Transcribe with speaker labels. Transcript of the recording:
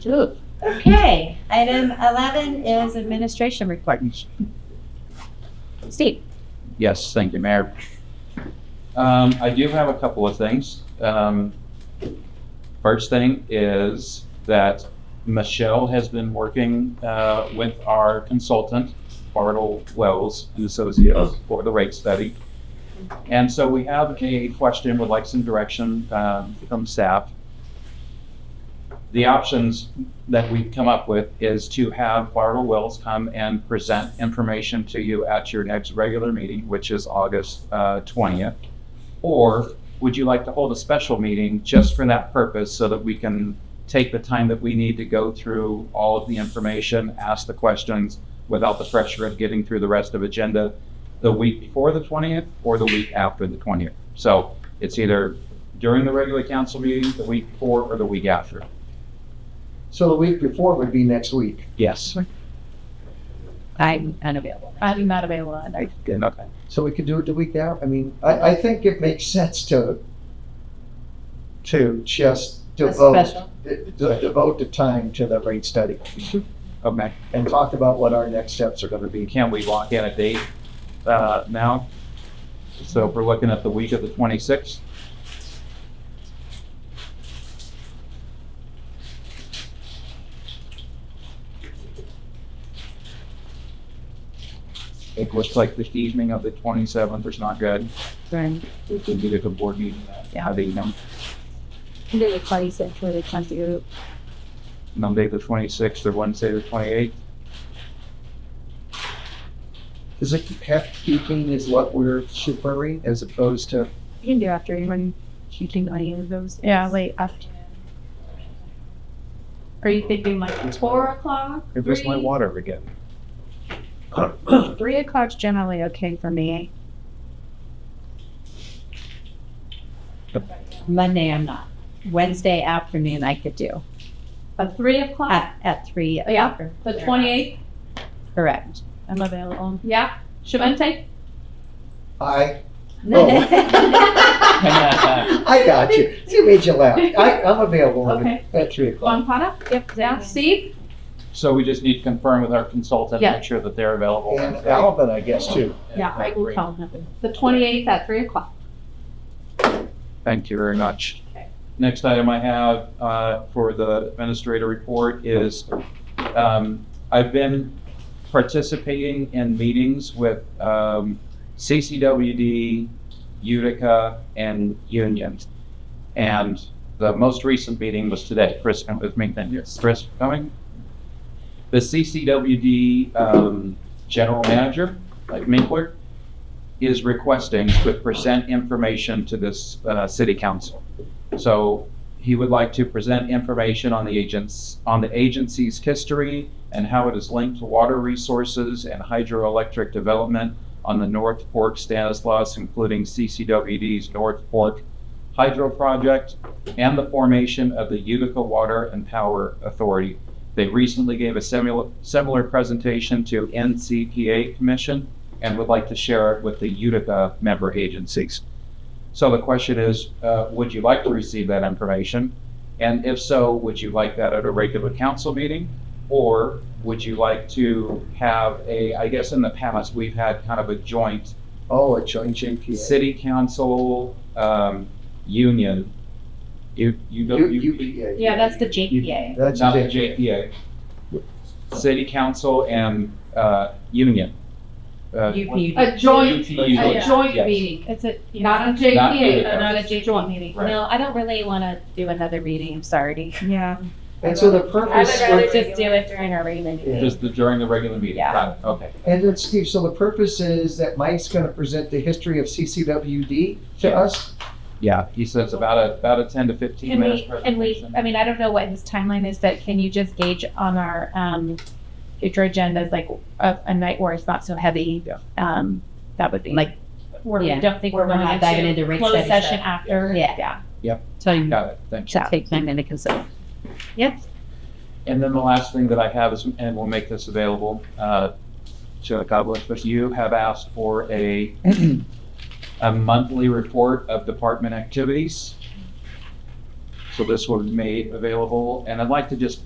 Speaker 1: Sure.
Speaker 2: Okay, item eleven is administration reports. Steve?
Speaker 1: Yes, thank you, Mayor. Um, I do have a couple of things. Um, First thing is that Michelle has been working uh, with our consultant, Bartle Wells and Associates, for the rate study. And so we have a question, would like some direction um, from staff. The options that we've come up with is to have Bartle Wells come and present information to you at your next regular meeting, which is August uh, twentieth. Or would you like to hold a special meeting just for that purpose so that we can take the time that we need to go through all of the information, ask the questions without the pressure of getting through the rest of agenda the week before the twentieth or the week after the twentieth? So it's either during the regular council meeting, the week before, or the week after.
Speaker 3: So the week before would be next week.
Speaker 1: Yes.
Speaker 2: I'm unavailable.
Speaker 4: I'm not available on that.
Speaker 1: Good, okay.
Speaker 3: So we could do it the week out. I mean, I, I think it makes sense to, to just
Speaker 4: That's
Speaker 3: devote,
Speaker 4: special.
Speaker 3: de- de- devote the time to the rate study
Speaker 1: Okay.
Speaker 3: and talk about what our next steps are gonna be.
Speaker 1: Can Oh, we lock in a date uh, now? So if we're looking at the week of the 26th? It looks like the evening of the 27th is not good.
Speaker 2: Right.
Speaker 1: We can do the board meeting uh, that
Speaker 2: Yeah.
Speaker 1: evening.
Speaker 4: Either the twenty-sixth or the twenty-eighth.
Speaker 1: Monday, the 26th, or Wednesday, the 28th?
Speaker 3: Is it housekeeping is what we're supering as opposed to,
Speaker 4: You can do after even shooting any of those. Yeah, late afternoon. Are you thinking like four o'clock?
Speaker 3: it was my
Speaker 4: Three?
Speaker 3: water again.
Speaker 4: Three o'clock's generally okay for me.
Speaker 2: Monday I'm not. Wednesday afternoon I could do,
Speaker 4: At three o'clock? Oh,
Speaker 2: at, at three.
Speaker 4: Yeah,
Speaker 2: or-
Speaker 4: The twenty-eighth,
Speaker 2: Correct.
Speaker 4: I'm available. Yeah, Shivante?
Speaker 3: I,
Speaker 2: Oh.
Speaker 1: Yes.
Speaker 3: I got you. You made you laugh. I, I'm available on
Speaker 4: Okay.
Speaker 3: it at three o'clock.
Speaker 4: Von Potta? Yep. Yeah, Steve?
Speaker 1: So we just need to confirm with our consultant,
Speaker 4: Yeah.
Speaker 1: make sure that they're available.
Speaker 3: And Alvin, I guess, too.
Speaker 4: Yeah, I will
Speaker 1: Great.
Speaker 4: call him. The twenty-eighth at three o'clock.
Speaker 1: Thank you very much.
Speaker 4: Okay.
Speaker 1: Next item I have uh, for the administrator report is, um, I've been participating in meetings with um, CCWD, Utica, and Union. And the most recent meeting was today. Chris, uh, with me, then. Chris coming? The CCWD um, general manager, like Minkler, is requesting to present information to this uh, city council. So he would like to present information on the agents, on the agency's history and how it is linked to water resources and hydroelectric development on the North Fork Stanislaus, including CCWD's North Fork Hydro Project and the formation of the Utica Water and Power Authority. They recently gave a similar, similar presentation to NCPA Commission and would like to share it with the Utica member agencies. So the question is, uh, would you like to receive that information? And if so, would you like that at a regular council meeting? Or would you like to have a, I guess in the past, we've had kind of a joint
Speaker 3: Oh, a joint JPA.
Speaker 1: city council, um, union. You, you
Speaker 3: U-
Speaker 1: go, you,
Speaker 3: UPA.
Speaker 4: Yeah, that's the JPA.
Speaker 3: That's
Speaker 1: not the
Speaker 3: it.
Speaker 1: JPA. City council and, uh, union. Uh,
Speaker 2: UP.
Speaker 4: A joint,
Speaker 1: UTU.
Speaker 4: a joint
Speaker 1: Yes.
Speaker 4: meeting. It's a, not a
Speaker 1: Not really.
Speaker 4: JPA, uh, not a JPA joint meeting.
Speaker 1: Right.
Speaker 2: No, I don't really want to do another reading, I'm sorry.
Speaker 4: Yeah.
Speaker 3: And so the
Speaker 2: I
Speaker 3: purpose,
Speaker 2: would rather
Speaker 3: of-
Speaker 2: just do it during our regular meeting.
Speaker 1: Just the, during the regular meeting?
Speaker 2: Yeah.
Speaker 1: Got it. Okay.
Speaker 3: and then Steve, so the purpose is that Mike's gonna present the history of CCWD to
Speaker 1: Yeah.
Speaker 3: us?
Speaker 1: Yeah, he says about a, about a ten to fifteen
Speaker 4: Can
Speaker 1: minutes
Speaker 4: we, and we,
Speaker 1: presentation.
Speaker 4: I mean, I don't know what his timeline is, but can you just gauge on our, um, future agendas, like a, a night where it's not so heavy?
Speaker 1: Yeah.
Speaker 4: Um, that would be.
Speaker 2: Like-
Speaker 4: Where we
Speaker 2: Yeah.
Speaker 4: don't think
Speaker 2: Where
Speaker 4: we're
Speaker 2: we're not
Speaker 4: going
Speaker 2: diving
Speaker 4: to
Speaker 2: into rate
Speaker 4: close
Speaker 2: study
Speaker 4: session
Speaker 2: stuff.
Speaker 4: after.
Speaker 2: Yeah.
Speaker 4: Yeah.
Speaker 2: So you
Speaker 1: Got it, thank you.
Speaker 2: take time into consideration.
Speaker 1: And then the last thing that I have is, and we'll make this available, uh, to God bless, but you have asked for a, a monthly report of department activities. So this will be made available, and I'd like to just